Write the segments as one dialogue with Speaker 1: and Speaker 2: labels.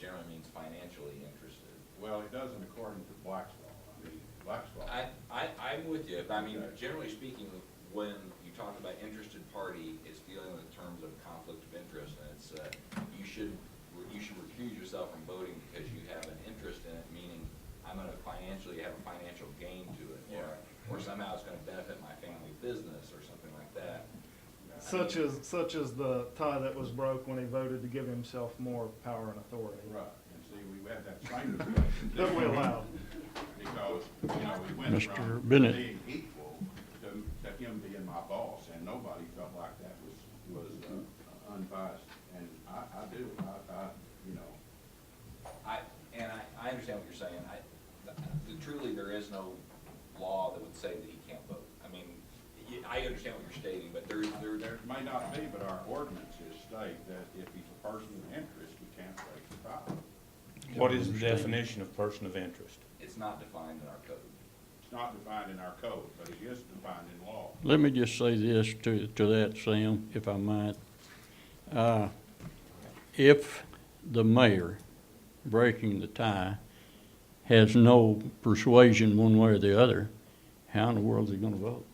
Speaker 1: person's financially interested.
Speaker 2: Well, it doesn't according to Black's law. I mean, Black's law.
Speaker 1: I, I, I'm with you, but I mean,
Speaker 2: Okay.
Speaker 1: generally speaking, when you talk about interested party, it's dealing with terms of conflict of interest, and it's, uh, you should, you should recuse yourself from voting because you have an interest in it, meaning I'm gonna financially have a financial gain to it, or, or somehow it's gonna benefit my family business, or something like that.
Speaker 3: Such as, such as the tie that was broke when he voted to give himself more power and authority
Speaker 2: Right, and see, we had that same discussion.
Speaker 3: that we allowed.
Speaker 2: Because, you know, we went from
Speaker 4: Mr. Bennett.
Speaker 2: being equal to, to him being my boss, and nobody felt like that was, was uh, unbiased. And I, I do, I, I, you know,
Speaker 1: I, and I, I understand what you're saying, I, th- truly, there is no law that would say that he can't vote. I mean, y- I understand what you're stating, but there, there, there,
Speaker 2: there may not be, but our ordinances state that if he's a person of interest, we can't raise the five.
Speaker 5: What is the definition of person of interest?
Speaker 1: it's not defined in our code.
Speaker 2: It's not defined in our code, but it is defined in law.
Speaker 4: Let me just say this to, to that, Sam, if I might. Uh, If the mayor, breaking the tie, has no persuasion one way or the other, how in the world is he gonna vote?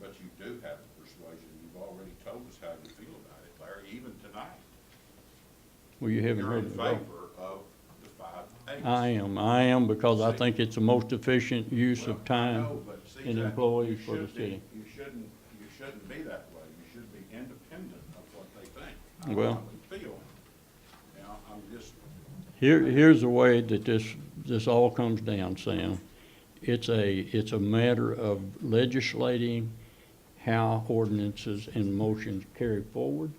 Speaker 2: But you do have the persuasion, you've already told us how you feel about it, Larry, even tonight.
Speaker 4: Well, you haven't
Speaker 2: You're in
Speaker 4: heard the vote.
Speaker 2: favor of the five eights.
Speaker 4: I am, I am, because I think it's the most efficient use
Speaker 2: Well,
Speaker 4: of
Speaker 2: I
Speaker 4: time
Speaker 2: know, but see,
Speaker 4: and
Speaker 2: that-
Speaker 4: employees
Speaker 2: you
Speaker 4: for the
Speaker 2: should be-
Speaker 4: city.
Speaker 2: You shouldn't, you shouldn't be that way, you should be independent of what they think. I
Speaker 4: Well-
Speaker 2: would Feel. Now, I'm just,
Speaker 4: Here, here's the way that this, this all comes down, Sam. It's a, it's a matter of legislating how ordinances and motions carry forward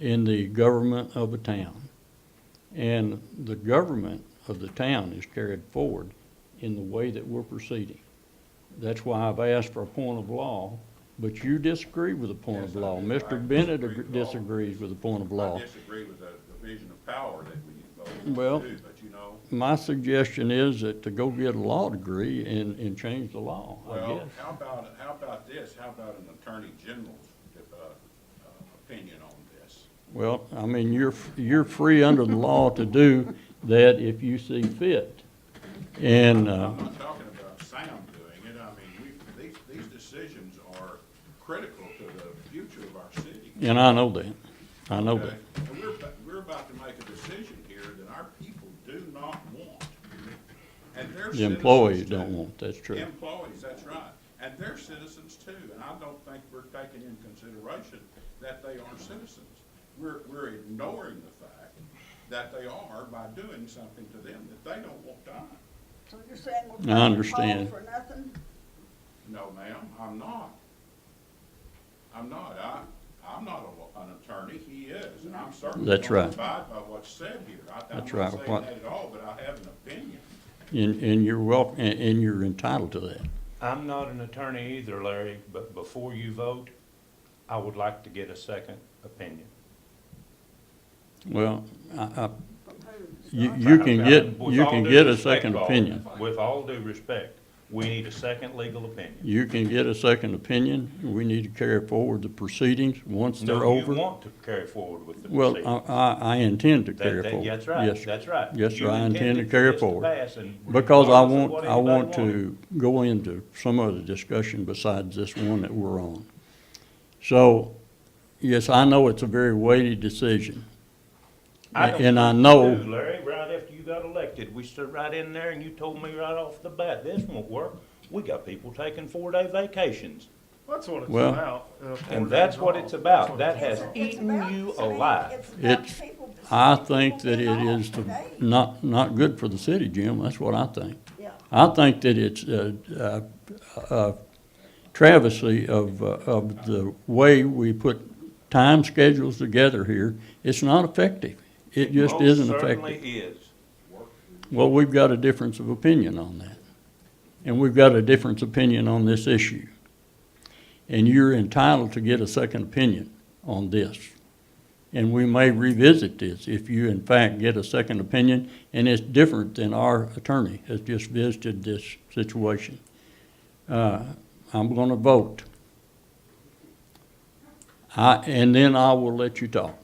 Speaker 4: in the government of a town. And the government of the town is carried forward in the way that we're proceeding. That's why I've asked for a point of law, but you disagree with the point
Speaker 2: Yes,
Speaker 4: of
Speaker 2: I
Speaker 4: law.
Speaker 2: do. I
Speaker 4: Mr.
Speaker 2: disagree
Speaker 4: Bennett ag-
Speaker 2: with law.
Speaker 4: disagrees with the point of law.
Speaker 2: I disagree with the division of power that we voted
Speaker 4: Well-
Speaker 2: on too, but you know,
Speaker 4: My suggestion is that to go get a law degree and, and change the law, I
Speaker 2: well,
Speaker 4: guess.
Speaker 2: how about, how about this, how about an attorney general's, uh, uh, opinion on this?
Speaker 4: Well, I mean, you're, f- you're free under the law to do that if you see fit. And, uh,
Speaker 2: I'm not talking about Sam doing it, I mean, we, these, these decisions are critical to the future of our city.
Speaker 4: and I know that. I know
Speaker 2: Okay?
Speaker 4: that.
Speaker 2: And we're, about- we're about to make a decision here that our people do not want. And their
Speaker 4: The
Speaker 2: citizens
Speaker 4: employees
Speaker 2: too.
Speaker 4: don't want, that's true.
Speaker 2: Employees, that's right, and their citizens too, and I don't think we're taking in consideration that they are citizens. We're, we're ignoring the fact that they are by doing something to them that they don't want done.
Speaker 6: So you're saying we're
Speaker 4: I
Speaker 6: paying Paul
Speaker 4: understand.
Speaker 6: for nothing?
Speaker 2: No, ma'am, I'm not. I'm not. I, I'm not a wa- an attorney. He is, and I'm certainly
Speaker 4: That's
Speaker 2: gonna
Speaker 4: right.
Speaker 2: abide by what's said here. I, I'm not
Speaker 4: That's right.
Speaker 2: saying
Speaker 4: What-
Speaker 2: that at all, but I have an opinion.
Speaker 4: And, and you're wel, and, and you're entitled to that.
Speaker 5: I'm not an attorney either, Larry, but before you vote, I would like to get a second opinion.
Speaker 4: Well, I, I,
Speaker 6: From who?
Speaker 4: you,
Speaker 6: Scott?
Speaker 4: you can get,
Speaker 5: With
Speaker 4: you
Speaker 5: all
Speaker 4: can
Speaker 5: due
Speaker 4: get a
Speaker 5: respect,
Speaker 4: second
Speaker 5: Paul,
Speaker 4: opinion.
Speaker 5: With all due respect, we need a second legal opinion.
Speaker 4: You can get a second opinion. We need to carry forward the proceedings once they're
Speaker 5: No,
Speaker 4: over.
Speaker 5: you want to carry forward with the
Speaker 4: Well,
Speaker 5: proceeding.
Speaker 4: I, I, I intend to
Speaker 5: That-
Speaker 4: carry
Speaker 5: that-
Speaker 4: forward.
Speaker 5: That's right,
Speaker 4: Yes,
Speaker 5: that's right.
Speaker 4: Yes,
Speaker 5: You
Speaker 4: sir, I intend to
Speaker 5: intended for
Speaker 4: carry
Speaker 5: this
Speaker 4: forward.
Speaker 5: pass and
Speaker 4: Because I
Speaker 5: regardless of
Speaker 4: want,
Speaker 5: what
Speaker 4: I want
Speaker 5: anybody wanted.
Speaker 4: to go into some other discussion besides this one that we're on. So, yes, I know it's a very weighty decision.
Speaker 5: I don't
Speaker 4: And I
Speaker 5: think
Speaker 4: know-
Speaker 5: you do, Larry, right after you got elected, we stood right in there and you told me right off the bat, this won't work. We got people taking four-day vacations.
Speaker 3: That's what it's
Speaker 4: Well-
Speaker 3: about. uh, four
Speaker 5: And that's
Speaker 3: days
Speaker 5: what
Speaker 3: off.
Speaker 5: it's about.
Speaker 3: That's what
Speaker 5: That
Speaker 3: it's
Speaker 5: has
Speaker 3: about.
Speaker 6: It's
Speaker 5: eaten
Speaker 6: about-
Speaker 5: you
Speaker 6: I mean,
Speaker 5: alive.
Speaker 6: It's about
Speaker 4: It's,
Speaker 6: people that-
Speaker 4: I
Speaker 6: people
Speaker 4: think that it
Speaker 6: getting off
Speaker 4: is the-
Speaker 6: today.
Speaker 4: not, not good for the city, Jim, that's what I think.
Speaker 6: Yeah.
Speaker 4: I think that it's a, a, a travesty of, uh, of the way we put time schedules together here. It's not effective. It just
Speaker 5: Most
Speaker 4: isn't effective.
Speaker 5: Certainly is.
Speaker 4: Well, we've got a difference of opinion on that. And we've got a difference opinion on this issue. And you're entitled to get a second opinion on this. And we may revisit this if you in fact get a second opinion, and it's different than our attorney has just visited this situation. Uh, I'm gonna vote. I, and then I will let you talk.